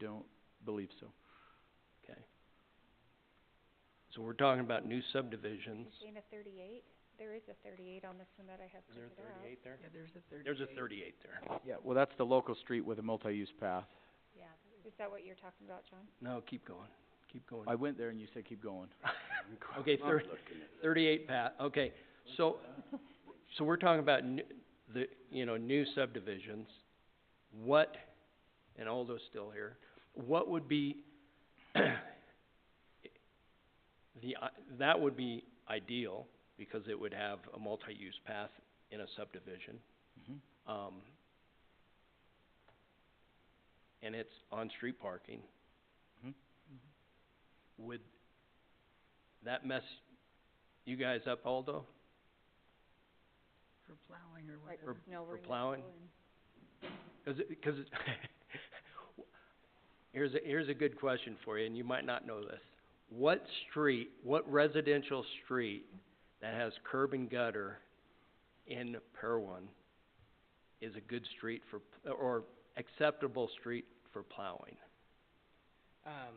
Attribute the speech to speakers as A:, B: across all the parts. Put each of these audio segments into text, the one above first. A: don't believe so.
B: Okay. So we're talking about new subdivisions.
C: Jane, a thirty-eight? There is a thirty-eight on this one that I have
B: Is there
C: printed
B: a
C: out.
B: thirty-eight there?
D: Yeah, there's a thirty-eight.
B: There's a thirty-eight there.
A: Yeah, well, that's the local street with a multi-use path.
C: Yeah. Is that what you're talking about, John?
B: No, keep going, keep going.
A: I went there and you said, keep going.
B: Okay, thir- thirty-eight, Pat, okay, so, so we're talking about n- the, you know, new subdivisions. What, and Aldo's still here, what would be the, i- that would be ideal, because it would have a multi-use path in a subdivision,
A: Mhm.
B: um, and it's on-street parking.
A: Mhm.
B: Would that mess you guys up, Aldo?
D: For plowing or
C: Right,
D: whatever.
C: no, we're
B: for plowing? Cause it, cause it, here's a, here's a good question for you, and you might not know this. What street, what residential street that has curb and gutter in Perwin is a good street for, p- or acceptable street for plowing?
E: Um,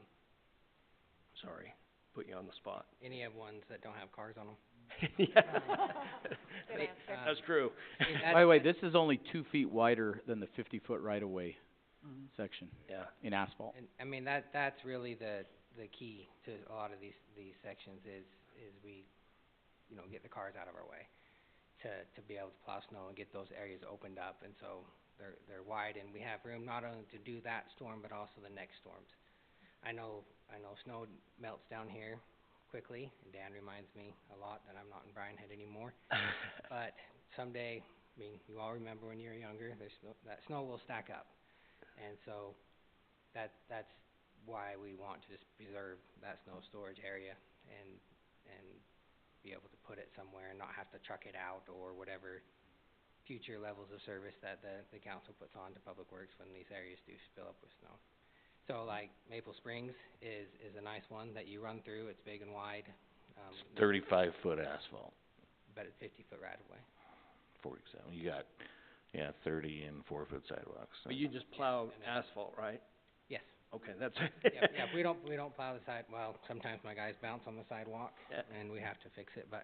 B: Sorry, put you on the spot.
E: any of ones that don't have cars on them.
C: Good
E: They-
C: answer.
E: um,
B: That's true.
E: it-
A: By the way,
E: that's-
A: this is only two feet wider than the fifty-foot right-of-way
D: Mhm.
E: Mm-hmm.
A: section
B: Yeah,
A: in asphalt.
E: and- I mean, that, that's really the, the key to a lot of these, these sections is, is we, you know, get the cars out of our way to, to be able to plow snow and get those areas opened up, and so they're, they're wide, and we have room not only to do that storm, but also the next storms. I know, I know snow melts down here quickly, and Dan reminds me a lot that I'm not in Bryan Head anymore, but someday, I mean, you all remember when you were younger, there's snow, that snow will stack up. And so, that, that's why we want to just preserve that snow storage area and, and be able to put it somewhere and not have to truck it out or whatever future levels of service that the, the council puts on to Public Works when these areas do spill up with snow. So like Maple Springs is, is a nice one that you run through, it's big and wide, um,
F: thirty-five foot asphalt,
E: but it's fifty foot right of way.
F: for example, you got, yeah, thirty and four foot sidewalks.
B: but you just plow asphalt, right?
E: Yes,
B: Okay, that's
E: yep, yep, we don't, we don't plow the side, well, sometimes my guys bounce on the sidewalk,
B: Yeah.
E: and we have to fix it, but,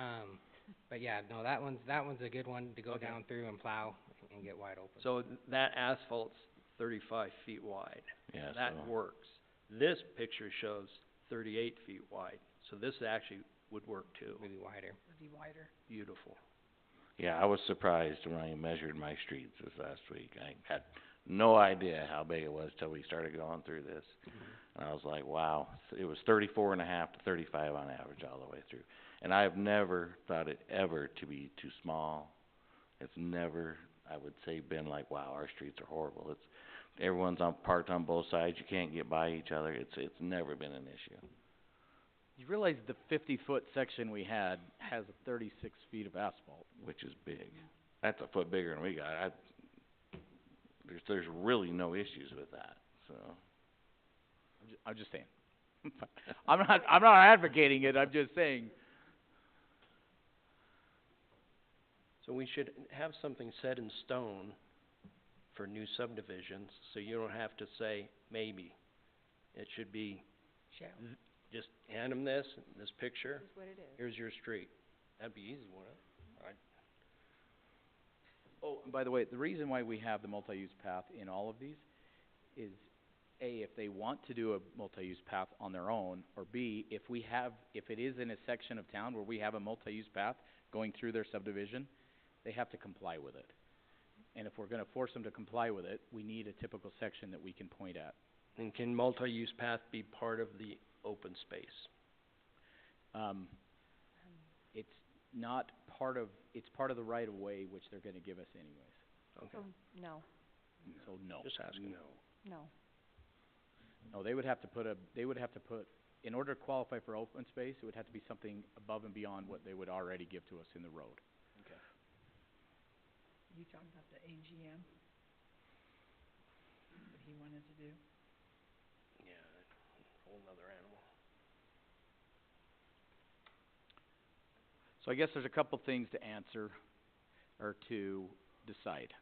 E: um, but yeah, no, that one's, that one's a good one to go
B: Okay.
E: down through and plow and get wide open.
B: So th- that asphalt's thirty-five feet wide,
F: Yeah,
B: that
F: so-
B: works. This picture shows thirty-eight feet wide, so this actually would work too.
E: Maybe wider.
D: Would be wider.
B: Beautiful.
F: Yeah, I was surprised when I measured my streets this last week. I had no idea how big it was till we started going through this.
E: Mm-hmm.
F: And I was like, wow, it was thirty-four and a half to thirty-five on average all the way through. And I've never thought it ever to be too small. It's never, I would say, been like, wow, our streets are horrible. It's, everyone's on, parked on both sides, you can't get by each other. It's, it's never been an issue.
A: You realize the fifty-foot section we had has thirty-six feet of asphalt.
F: which is big. That's a foot bigger than we got, I, there's, there's really no issues with that, so.
A: I'm ju- I'm just saying. I'm not, I'm not advocating it, I'm just saying,
B: So we should have something set in stone for new subdivisions, so you don't have to say maybe. It should be,
D: Shall.
B: just hand them this, this picture,
C: This is what it is.
B: here's your street. That'd be easy, wouldn't it?
A: Oh, and by the way, the reason why we have the multi-use path in all of these is, A, if they want to do a multi-use path on their own, or B, if we have, if it is in a section of town where we have a multi-use path going through their subdivision, they have to comply with it. And if we're gonna force them to comply with it, we need a typical section that we can point at.
B: And can multi-use path be part of the open space?
A: Um, it's not part of, it's part of the right-of-way which they're gonna give us anyways,
B: Okay,
C: Oh, no,
A: so no.
B: just asking. Oh. No.
C: no.
A: No, they would have to put a, they would have to put, in order to qualify for open space, it would have to be something above and beyond what they would already give to us in the road.
D: You talking about the AGM? What he wanted to do?
B: Yeah, whole nother animal.
A: So I guess there's a couple things to answer or to decide.